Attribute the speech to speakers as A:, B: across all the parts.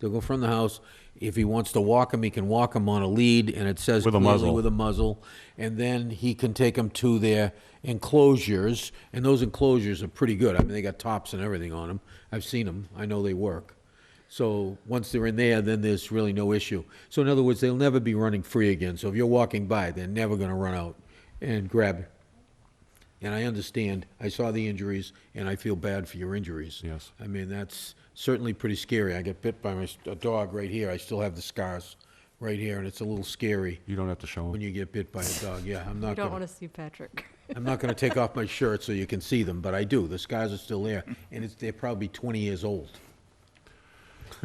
A: They'll go from the house. If he wants to walk him, he can walk him on a lead, and it says
B: With a
A: clearly
B: muzzle.
A: with a muzzle. And then he can take them to their enclosures, and those enclosures are pretty good. I mean, they got tops and everything on them. I've seen them. I know they work. So once they're in there, then there's really no issue. So in other words, they'll never be running free again. So if you're walking by, they're never going to run out and grab. And I understand. I saw the injuries, and I feel bad for your injuries.
B: Yes.
A: I mean, that's certainly pretty scary. I got bit by my, a dog right here. I still have the scars right here, and it's a little scary
B: You don't have to show
A: when
B: them.
A: you get bit by a dog. Yeah, I'm
C: You
A: not
C: don't want
A: gonna,
C: to see Patrick.
A: I'm not gonna take off my shirt so you can see them, but I do. The scars are still there, and it's, they're probably 20 years old.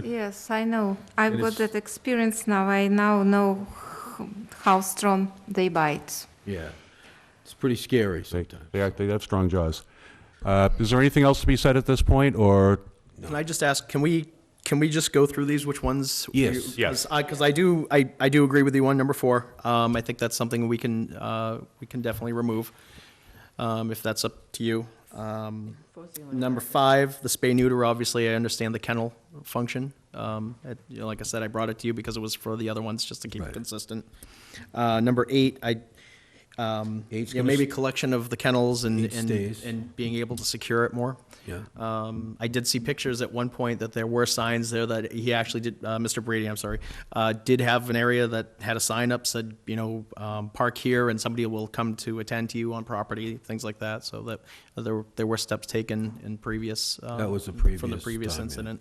D: Yes, I know. I've
A: And
D: got
A: it's-
D: that experience now. I now know h- how strong they bite.
A: Yeah. It's pretty scary
B: They,
A: sometimes.
B: they act- they have strong jaws. Uh, Is there anything else to be said at this point, or
E: Can I just ask, can we, can we just go through these, which ones? we-
A: Yes.
B: Yes.
E: Because I, 'cause I do, I, I do agree with you on number four. Um, I think that's something we can, uh, we can definitely remove, um, if that's up to you. Um, number five, the spay neuter, obviously, I understand the kennel function. Um, it- you know, like I said, I brought it to you because it was for the other ones, just to keep
A: Right.
E: it consistent. Uh, number eight, I, um, you
A: Eight's
E: know,
A: gonna
E: maybe
A: s-
E: collection of the kennels and,
A: Eight
E: and,
A: stays.
E: and being able to secure it more.
A: Yeah.
B: Uh,
E: Um, I did see pictures at one point that there were signs there that he actually did, uh, Mr. Brady, I'm sorry, uh, did have an area that had a sign up said, you know, um, park here and somebody will come to attend to you on property, things like that. So that uh, there, were- there were steps taken in previous. uh,
A: That was the
E: From the
A: previous
E: previous
A: time, yeah.
E: incident.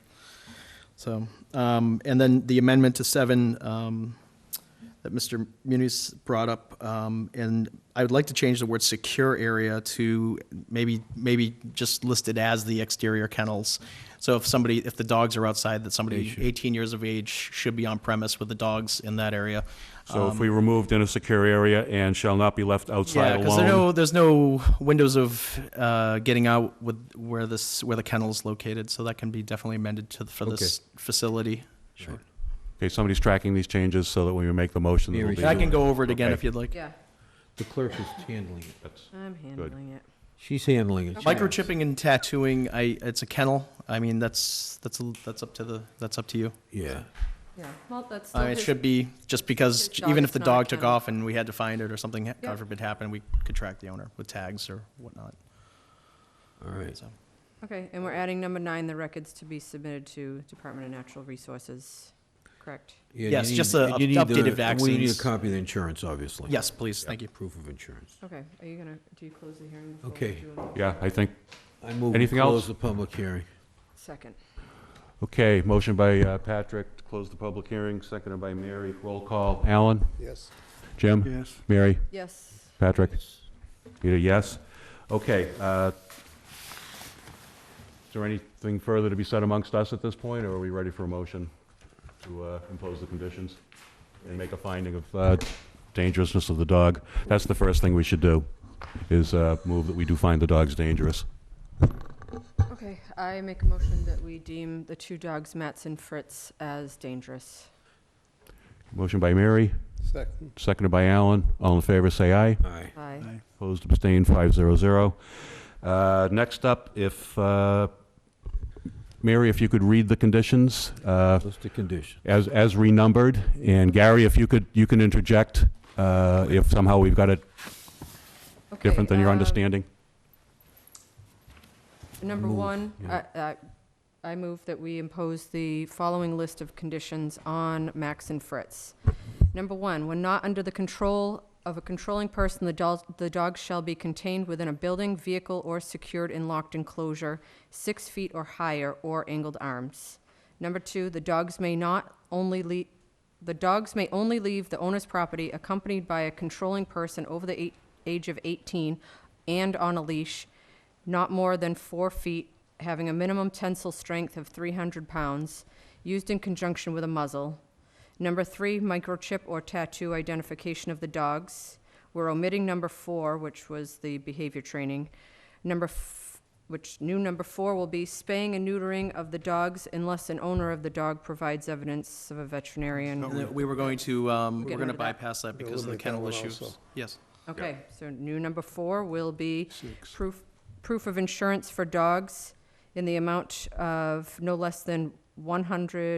E: So, um, and then the amendment to seven, um, that Mr. Muniz brought up, um, and I would like to change the word secure area to maybe, maybe just listed as the exterior kennels. So if somebody, if the dogs are outside, that somebody eighteen years of age should be on premise with the dogs in that area. Uh,
B: so if we removed in a secure area and shall not be left outside
E: Yeah, because there's
B: alone?
E: no, there's no windows of, uh, getting out with where this, where the kennel's located, so that can be definitely amended to, for this facility. Sure.
B: Okay, somebody's tracking these changes so that when we make the motion,
A: Here
B: it'll
A: we
B: be.
E: I can go over it again
B: Okay.
E: if you'd like.
C: Yeah,
A: The clerk is handling it.
B: That's-
C: I'm handling it.
A: She's handling it.
E: Microchipping and tattooing, I, it's a kennel. I mean, that's, that's, a- that's up to the, that's up to you.
A: Yeah.
C: Yeah, well, that's still
E: I mean, it
C: his-
E: should be, just
C: his
E: because
C: dog
E: even
C: is
E: if the
C: not a
E: dog took
C: kennel.
E: off and we had to find it or something,
C: Yeah.
E: God forbid happened, we could track the owner with tags or whatnot,
A: All right.
E: so.
C: Okay, and we're adding number nine, the records to be submitted to Department of Natural Resources, correct?
A: Yeah, you
E: Yes, just
A: need-
E: the
A: and
E: up-
A: you need the-
E: updated
A: We need a
E: vaccines.
A: copy of the insurance, obviously.
E: Yes, please, thank you.
A: Proof of insurance.
C: Okay, are you gonna, do you close the hearing? before we
A: Okay.
C: do a
B: Yeah, I think,
A: I move we
B: Anything
A: close
B: else?
A: the public hearing.
C: Second.
B: okay, motion by uh, Patrick to close the public hearing, seconded by Mary. Roll call. Alan?
F: Yes.
B: Jim?
F: Yes.
B: Mary?
C: Yes,
B: Patrick? Peter, yes? Okay. uh, Is there anything further to be said amongst us at this point, or are we ready for a motion to uh, impose the conditions and make a finding of uh, dangerousness of the dog? That's the first thing we should do, is uh, move that we do find the dogs dangerous.
C: okay, I make a motion that we deem the two dogs, Matts and Fritz, as dangerous.
B: Motion by Mary,
F: Second.
B: seconded by Alan. All in favor, say aye.
A: Aye.
C: Aye.
B: Opposed, abstained, five zero zero. Uh, Next up, if, uh, Mary, if you could read the conditions, uh,
A: Those the condition.
B: as, as renumbered. And Gary, if you could, you can interject uh, if somehow we've got it
C: Okay,
B: different than your
C: um,
B: understanding.
C: Number
A: Move,
C: one,
A: yeah.
C: I- I- I move that we impose the following list of conditions on Max and Fritz. Number one, when not under the control of a controlling person, the dol- the dog shall be contained within a building, vehicle, or secured and locked enclosure, six feet or higher, or angled arms. Number two, the dogs may not only le- the dogs may only leave the owner's property accompanied by a controlling person over the eight- age of 18 and on a leash, not more than four feet, having a minimum tensile strength of 300 pounds, used in conjunction with a muzzle. Number three, microchip or tattoo identification of the dogs. We're omitting number four, which was the behavior training. Number, f- which new number four will be spaying and neutering of the dogs unless an owner of the dog provides evidence of a veterinarian.
E: And then We were going to, um,
C: We're
E: we're
C: getting
E: gonna
C: rid of that.
E: bypass that
F: We're gonna
E: because of the
F: eliminate that
E: kennel
F: one
E: issues.
F: also.
E: Yes.
C: Okay, so new number four will be proof, proof of insurance for dogs in the amount of no less than one hundred